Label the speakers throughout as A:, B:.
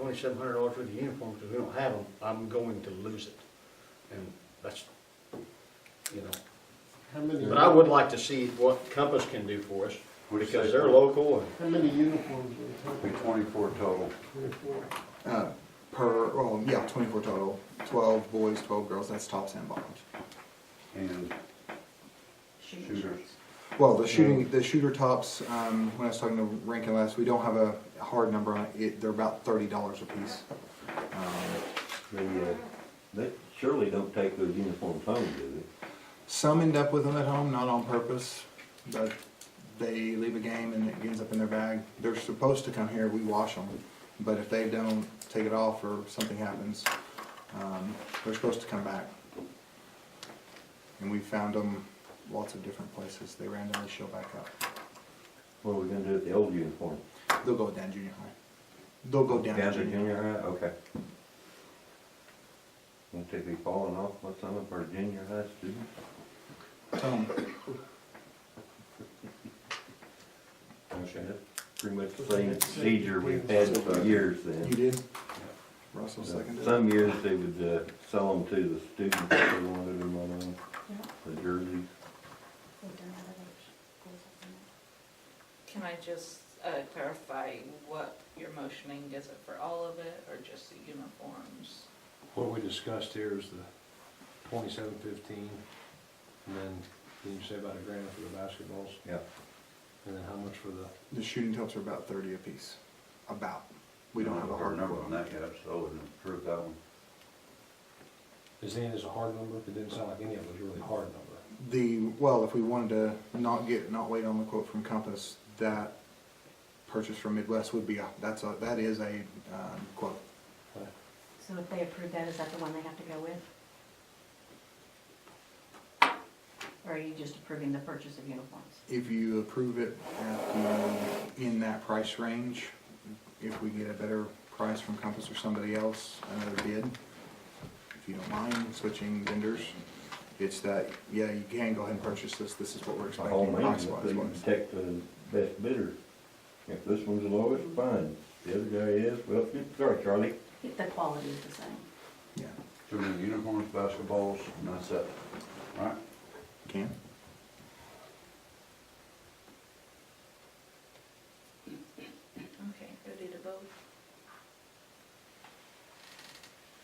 A: twenty-seven hundred dollars worth of uniforms, if we don't have them, I'm going to lose it. And that's, you know,
B: How many?
A: but I would like to see what Compass can do for us,
C: What'd you
A: because
C: say?
A: they're local and,
B: How many uniforms are we
C: Be
B: talking?
C: twenty-four total.
B: Twenty-four.
D: uh, per, well, yeah, twenty-four total, twelve boys, twelve girls, that's tops and bottoms.
C: And shooters.
D: Well, the shooting, the shooter tops, um, when I was talking to Rankin last, we don't have a hard number on it, it, they're about thirty dollars a piece. Um,
E: They, uh, they surely don't take those uniforms home, do
D: Some end up with them at home, not on purpose, but they leave a game and it ends up in their bag. They're supposed to come here, we wash them, but if they don't take it off or something happens, um, they're supposed to come back. And we found them lots of different places, they randomly show back up.
E: they? What are we gonna do with the old uniform?
D: They'll go down junior high. They'll go down
E: Down
D: to
E: to
D: junior.
E: junior high, okay. Won't they be falling off what's on them for a junior high student?
D: Um,
E: Okay. Pretty much the same procedure we've had for years
D: You
E: then.
D: did? Russell seconded? it?
E: Some years they would, uh, sell them to the students if they wanted them on, them, the jerseys.
F: Can I just uh, clarify what you're motioning? Is it for all of it or just the uniforms?
G: What we discussed here is the twenty-seven fifteen, and then, didn't you say about a grand for the basketballs?
E: Yeah.
G: And then how much for the,
D: The shooting tops are about thirty apiece, about. We don't have a hard
C: number
D: quote
C: on
D: on it.
C: that yet, so I wouldn't approve that one.
G: is any of this a hard number? It didn't sound like any of it was really hard number.
D: The, well, if we wanted to not get, not wait on the quote from Compass, that purchase from Midwest would be, a that's a, that is a, um, quote.
H: So if they approve that, is that the one they have to go with? Or are you just approving the purchase of uniforms?
D: If you approve it at the, in that price range, if we get a better price from Compass or somebody else, another bid, if you don't mind switching vendors, it's that, yeah, you can go ahead and purchase this, this is what we're
E: By all
D: expecting
E: means,
D: price
E: if
D: wise.
E: they can take the best bidder. If this one's the lowest, fine. The other guy is, well, sorry, Charlie.
H: If the quality is the same.
D: Yeah,
C: So we need uniforms, basketballs, and that's it, right?
D: can.
F: Okay, ready to vote?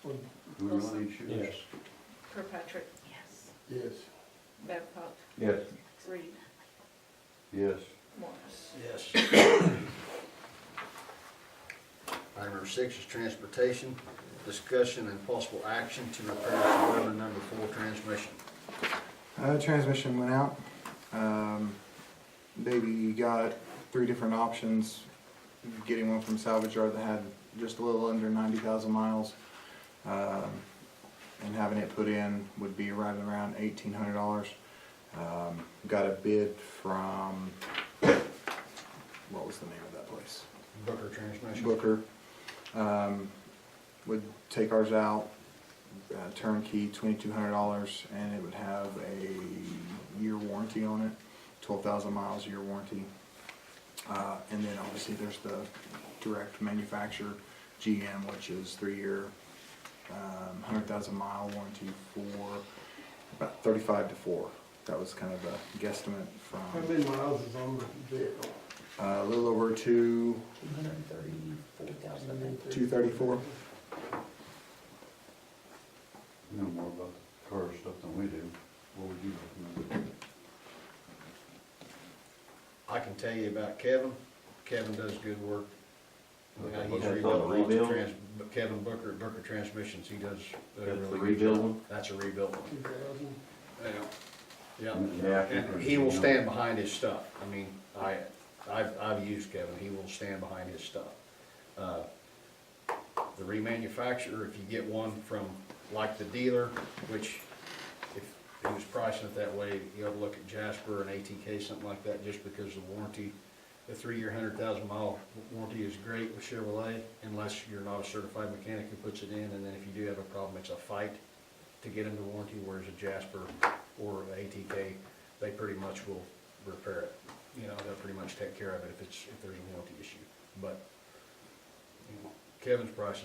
C: Do we really need shooters?
G: Yes.
F: Kirkpatrick,
H: Yes.
B: Yes.
F: Babcock,
E: Yes.
F: Reed,
C: Yes.
F: Morris.
A: yes. Item number six is transportation, discussion and possible action to repair the Weber number four transmission.
D: Uh, transmission went out. Um, baby got three different options. Getting one from salvage yard that had just a little under ninety thousand miles, um, and having it put in would be right around eighteen hundred dollars. Um, got a bid from what was the name of that place?
A: Booker transmission.
D: Booker, um, would take ours out, uh, turnkey, twenty-two hundred dollars, and it would have a year warranty on it, twelve thousand miles, year warranty. Uh, and then obviously there's the direct manufacturer, GM, which is three-year, um, hundred thousand mile warranty for about thirty-five to four. That was kind of a guesstimate
B: How
D: from,
B: many miles is on the vehicle?
D: uh, a little over two, two thirty-four.
C: You know more about car stuff than we do. What would you recommend?
A: I can tell you about Kevin. Kevin does good work. Yeah, He's
E: That's on
A: rebuilt
E: the
A: lots of
E: rebuild?
A: trans, Kevin Booker, Booker Transmissions, he does. a
E: That's the
A: really good
E: rebuild
A: job.
E: one?
A: That's a rebuild one.
B: Two thousand?
A: Yeah,
E: Yeah, I
A: yeah.
E: think
A: And
E: we're-
A: he will stand behind his stuff. I mean, I, I've, I've used Kevin, he will stand behind his stuff. Uh, The remanufacturer, if you get one from, like the dealer, which if he was pricing it that way, you ought to look at Jasper and ATK, something like that, just because the warranty, the three-year, hundred thousand mile warranty is great with Chevrolet, unless you're not a certified mechanic who puts it in, and then if you do have a problem, it's a fight to get into warranty, whereas a Jasper or a ATK, they pretty much will repair it. You know, they'll pretty much take care of it if it's, if there's a warranty issue, but, you know, Kevin's price is